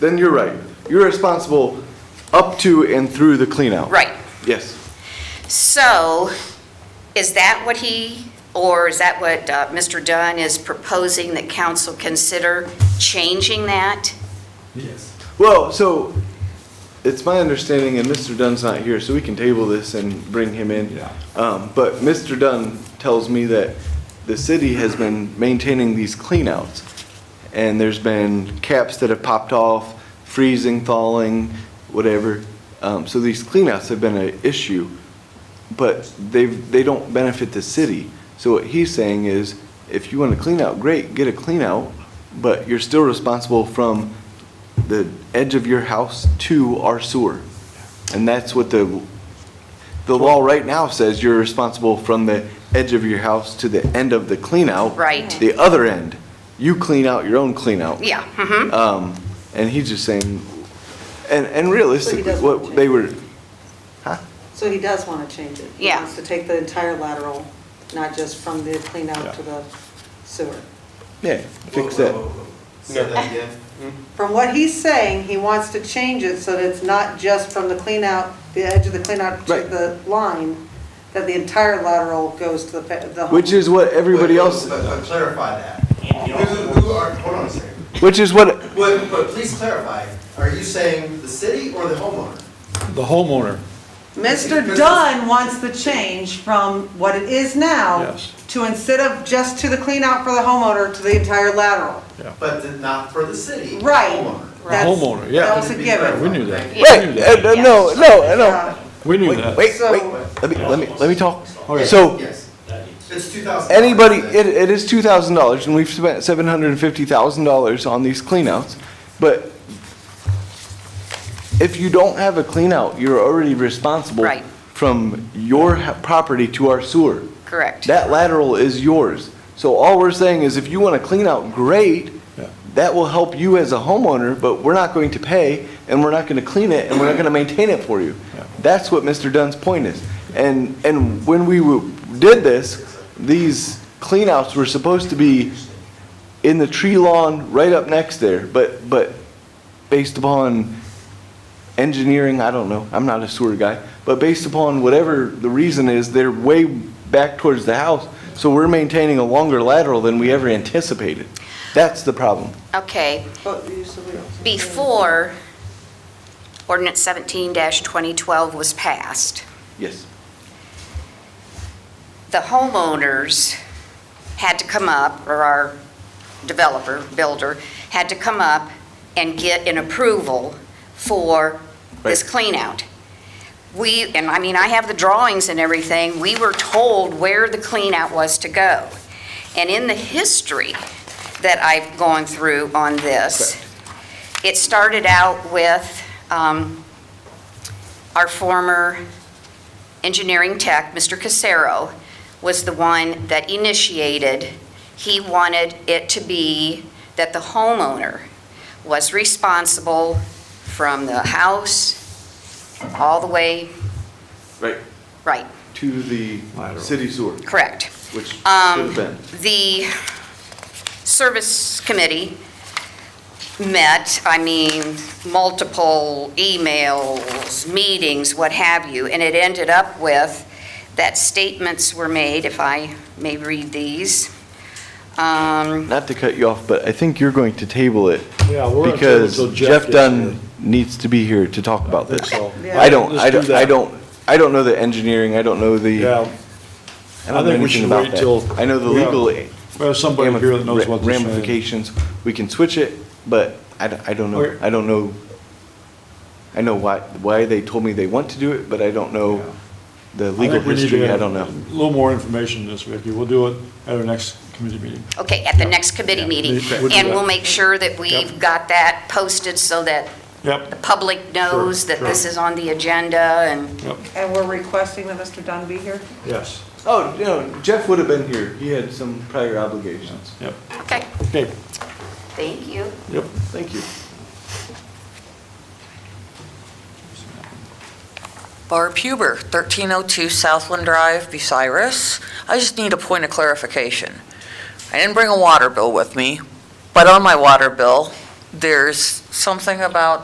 Then you're right. You're responsible up to and through the cleanout. Right. Yes. So, is that what he, or is that what uh, Mr. Dunn is proposing that council consider changing that? Yes. Well, so it's my understanding, and Mr. Dunn's not here, so we can table this and bring him in. Yeah. Um, but Mr. Dunn tells me that the city has been maintaining these cleanouts. And there's been caps that have popped off, freezing, thawing, whatever. Um, so these cleanouts have been an issue, but they've, they don't benefit the city. So what he's saying is, if you want to clean out, great, get a cleanout, but you're still responsible from the edge of your house to our sewer. And that's what the, the law right now says you're responsible from the edge of your house to the end of the cleanout. Right. The other end. You clean out your own cleanout. Yeah, mhm. Um, and he's just saying, and, and realistically, doesn't what they were, So he does want to change it. Yeah. He wants to take the entire lateral, not just from the clean out to the sewer. yeah, fix that. Say that again. From what he's saying, he wants to change it so that it's not just from the clean out, the edge of the clean out to Right. the line, that the entire lateral goes to the, fa- the home. Which is what everybody Wait, wait, else, But but clarify that. Who- who are- hold on a second. which is what, But, but please clarify, are you saying the city or the homeowner? The homeowner, Mr. Dunn wants the change from what it is now Yes. to instead of just to the clean out for the homeowner, to the entire lateral. But did not for the city. the Right. Homeowner. That's- homeowner, yeah. That was a given. we knew that. Right. We knew wait, that. uh, no, no, Uh, no. We knew Wait, that. wait, So- wait, let me, let me, let me talk. So, Yes. It's two thousand. anybody, it, it is two thousand dollars, and we've spent seven hundred and fifty thousand dollars on these cleanouts, but if you don't have a cleanout, you're already responsible Right. from your ha- property to our sewer. correct. That lateral is yours. So all we're saying is if you want to clean out, great. Yeah. That will help you as a homeowner, but we're not going to pay and we're not going to clean it and we're not going to maintain it for you. Yeah. That's what Mr. Dunn's point is. And, and when we w- did this, these cleanouts were supposed to be in the tree lawn right up next there, but, but based upon engineering, I don't know, I'm not a sewer guy, but based upon whatever the reason is, they're way back towards the house, so we're maintaining a longer lateral than we ever anticipated. That's the problem. hmm, Okay, but you said we don't- before ordinance 17-2012 was passed, Yes. the homeowners had to come up, or our developer, builder, had to come up and get an approval for this cleanout. We, and I mean, I have the drawings and everything, we were told where the cleanout was to go. And in the history that I've gone through on this, it started out with um, our former engineering tech, Mr. Casero, was the one that initiated. He wanted it to be that the homeowner was responsible from the house all the way, Right. right, To the Lateral. city sewer, correct. which should Um, have been. The service committee met, I mean, multiple emails, meetings, what have you, and it ended up with that statements were made, if I may read these. Um, Not to cut you off, but I think you're going to table it. Yeah, we're gonna table till Because Jeff Jeff gets here. Dunn needs to be here to talk about this. So- I don't, Let's I don't, that. I don't, I don't know the engineering, I don't know the, Yeah, I don't I know think we anything should about wait till that. I know the we have- legal we have somebody here that knows what they're saying. ramifications. We can switch it, but I, d- I don't know, Okay. I don't know. I know why, why they told me they want to do it, but I don't know the I legal think we need to history, get I don't know. A little more information this, Vicki. We'll do it at our next committee meeting. Okay, at the next committee meeting, Yeah, we'll do and that. we'll make sure that we've Yep. got that posted so that the Yep, public knows that this sure. is on the agenda and, yep, And we're requesting that Mr. Dunn be here? yes, Oh, you know, Jeff would have been here, he had some prior obligations. yep. okay, Okay, thank you. yep. Thank you. Barb Huber, 1302 Southland Drive, Bucyrus. I just need a point of clarification. I didn't bring a water bill with me, but on my water bill, there's something about